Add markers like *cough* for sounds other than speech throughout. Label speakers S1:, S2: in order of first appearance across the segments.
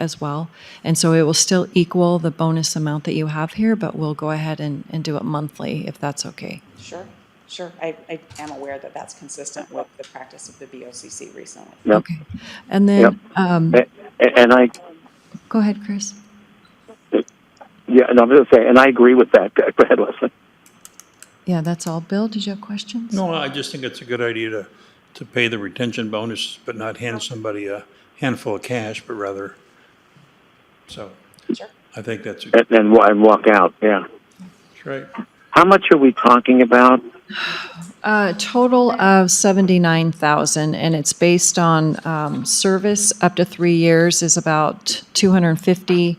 S1: as well. And so it will still equal the bonus amount that you have here, but we'll go ahead and, and do it monthly if that's okay.
S2: Sure, sure. I, I am aware that that's consistent with the practice of the BOCC recently.
S3: Yep.
S1: Okay. And then, um,
S3: A- And I,
S1: go ahead, Chris.
S3: yeah, and I'm going to say, and I agree with that. Go ahead, Leslie.
S1: Yeah, that's all. Bill, did you have questions?
S4: No, I just think it's a good idea to, to pay the retention bonus, but not hand somebody a handful of cash, but rather, so,
S2: Sure.
S4: I think that's, a-
S3: And, and wa- and walk out, yeah.
S4: that's right.
S3: How much are we talking about?
S1: A Uh, total of 79,000, and it's based on um, service up to three years is about 250.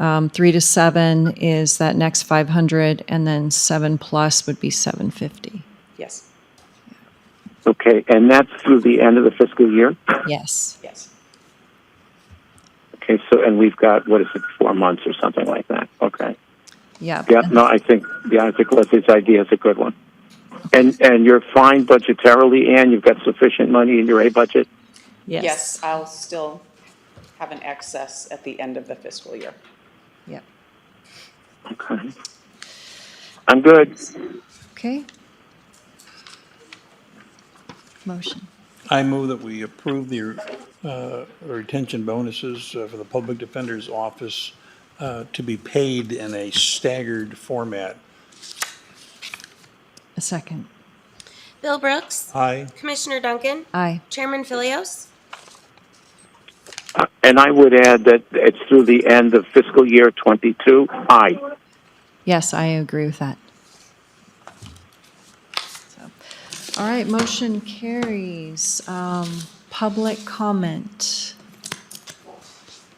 S1: Um, Three to seven is that next 500, and then seven plus would be 750.
S2: Yes,
S3: Okay, and that's through the end of the fiscal year?
S1: Yes.
S2: yes.
S3: Okay, so, and we've got, what is it, four months or something like that? Okay.
S1: Yep. *laughs*
S3: Yeah, no, I think, yeah, I think Leslie's idea is a good one. And, and you're fine budgetarily, Ann, you've got sufficient money in your A budget?
S2: Yes, I'll still have an excess at the end of the fiscal year.
S1: Yep.
S3: Okay. I'm good.
S1: Okay. Motion.
S4: I move that we approve the uh, retention bonuses uh, for the public defender's office uh, to be paid in a staggered format.
S1: A second.
S5: Bill Brooks.
S4: Aye.
S5: Commissioner Duncan.
S1: Aye.
S5: Chairman Philios.
S3: Uh, And I would add that it's through the end of fiscal year twenty-two. Aye.
S1: Yes, I agree with that. So, All right, motion carries. Um, Public comment.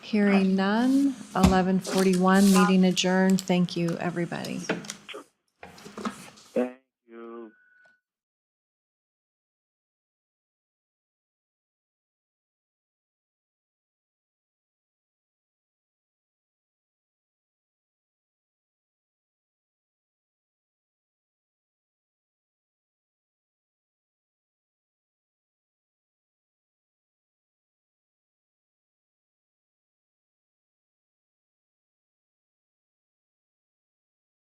S1: Hearing none. 11:41, meeting adjourned. Thank you, everybody.